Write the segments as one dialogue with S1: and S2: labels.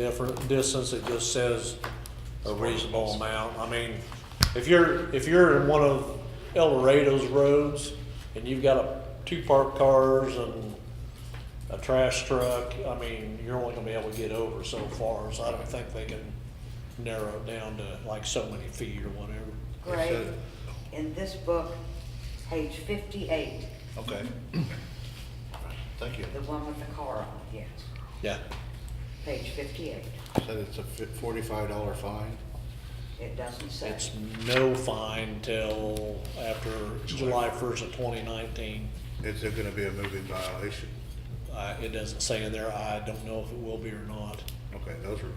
S1: different distance, it just says a reasonable amount. I mean, if you're, if you're in one of El Dorado's roads and you've got a, two parked cars and a trash truck, I mean, you're only gonna be able to get over so far, so I don't think they can narrow it down to like so many feet or whatever.
S2: Gray,
S3: said-
S2: in this book, page fifty-eight,
S3: Okay. Thank you.
S2: the one with the car on it, yes,
S1: Yeah.
S2: page fifty-eight,
S3: Said it's a fi- forty-five dollar fine.
S2: it doesn't say.
S1: It's no fine till after July first of twenty nineteen.
S3: Is it gonna be a moving violation?
S1: Uh, it doesn't say in there, I don't know if it will be or not.
S3: Okay, those were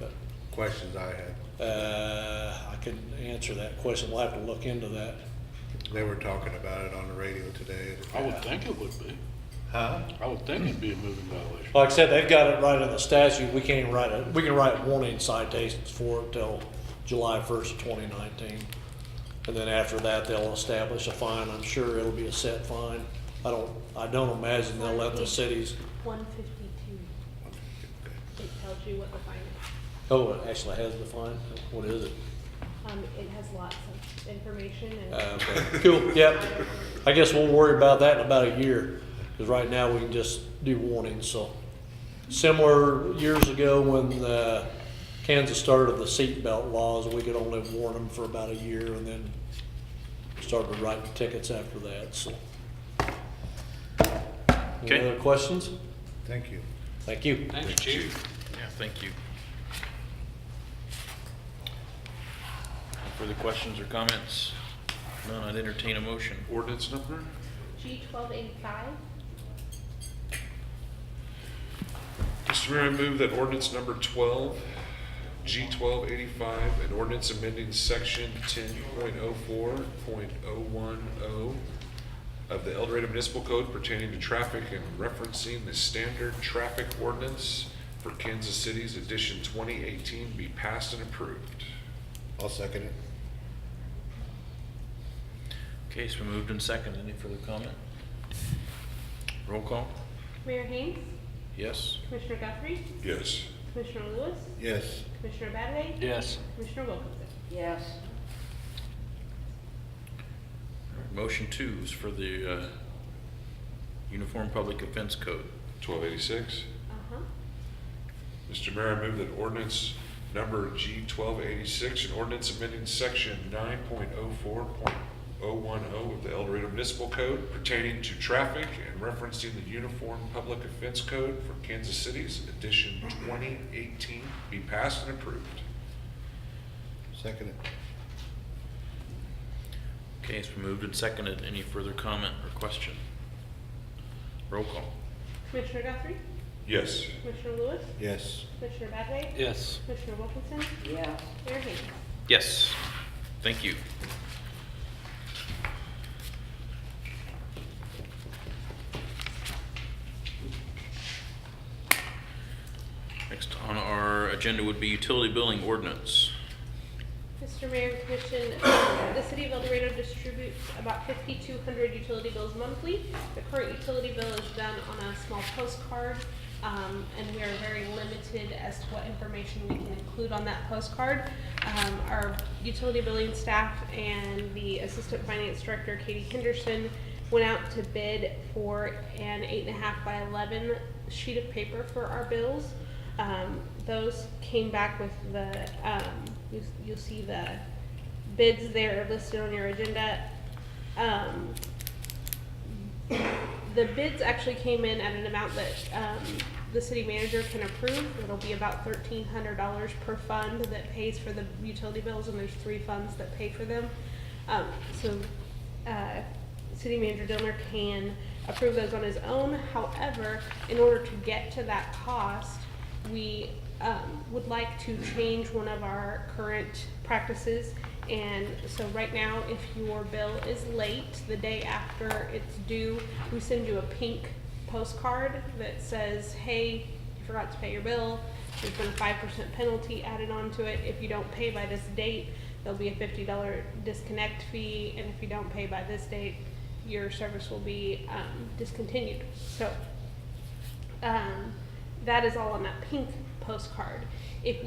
S3: questions I had.
S1: Uh, I couldn't answer that question. We'll have to look into that.
S3: They were talking about it on the radio today.
S4: I would think it would be.
S3: Huh?
S4: I would think it'd be a moving violation.
S1: Like I said, they've got it right in the statute. We can't even write it. We can write warning citations for it till July first, twenty nineteen. And then after that, they'll establish a fine. I'm sure it'll be a set fine. I don't, I don't imagine they'll let the cities,
S5: One fifty-two,
S3: Okay.
S5: it tells you what the fine is.
S1: oh, it actually has the fine. What is it?
S5: Um, it has lots of information
S1: Uh,
S5: and.
S1: but Cool, yep. I guess we'll worry about that in about a year, because right now we can just do warnings, so. Similar years ago when uh, Kansas started the seatbelt laws, we could only warn them for about a year and then started writing tickets after that, so. Any
S6: Okay.
S1: other questions?
S3: Thank you.
S1: Thank you.
S4: Thank you, Chief.
S6: Yeah, thank you. Further questions or comments? None, I'd entertain a motion.
S4: Ordinance number?
S5: G twelve eighty-five,
S4: Mr. Mayor, I move that ordinance number twelve, G twelve eighty-five, an ordinance amending section ten point oh four point oh one oh of the El Dorado Municipal Code pertaining to traffic and referencing the standard traffic ordinance for Kansas City's edition twenty eighteen be passed and approved.
S3: I'll second it.
S6: Okay, so moved and second. Any further comment? Roll call?
S5: Mayor Haynes,
S6: Yes?
S5: Commissioner Guthrie,
S4: Yes.
S5: Commissioner Lewis,
S3: Yes.
S5: Commissioner Badway,
S6: Yes.
S5: Commissioner Wilkinson.
S2: Yes,
S6: Motion two is for the uh, Uniform Public Offense Code.
S4: Twelve eighty-six.
S5: Uh-huh,
S4: Mr. Mayor, I move that ordinance number G twelve eighty-six, an ordinance amending section nine point oh four point oh one oh of the El Dorado Municipal Code pertaining to traffic and referencing the Uniform Public Offense Code for Kansas City's edition twenty eighteen be passed and approved.
S3: Second it.
S6: Okay, it's been moved and seconded. Any further comment or question? Roll call?
S5: Commissioner Guthrie,
S4: Yes.
S5: Commissioner Lewis,
S3: Yes.
S5: Commissioner Badway,
S6: Yes.
S5: Commissioner Wilkinson,
S2: yes,
S5: Mayor Haynes.
S6: Yes. Thank you. Next on our agenda would be utility billing ordinance.
S5: Mr. Mayor and Commission, uh, the City of El Dorado distributes about fifty-two hundred utility bills monthly. The current utility bill is done on a small postcard, um, and we are very limited as to what information we can include on that postcard. Um, our utility billing staff and the Assistant Finance Director, Katie Henderson, went out to bid for an eight and a half by eleven sheet of paper for our bills. Um, those came back with the, um, you, you'll see the bids there listed on your agenda. Um, the bids actually came in at an amount that, um, the city manager can approve. It'll be about thirteen hundred dollars per fund that pays for the utility bills, and there's three funds that pay for them. Um, so, uh, city manager Dillner can approve those on his own. However, in order to get to that cost, we um, would like to change one of our current practices. And so right now, if your bill is late, the day after it's due, we send you a pink postcard that says, hey, you forgot to pay your bill. There's been a five percent penalty added onto it. If you don't pay by this date, there'll be a fifty dollar disconnect fee. And if you don't pay by this date, your service will be um, discontinued. So um, that is all on that pink postcard. If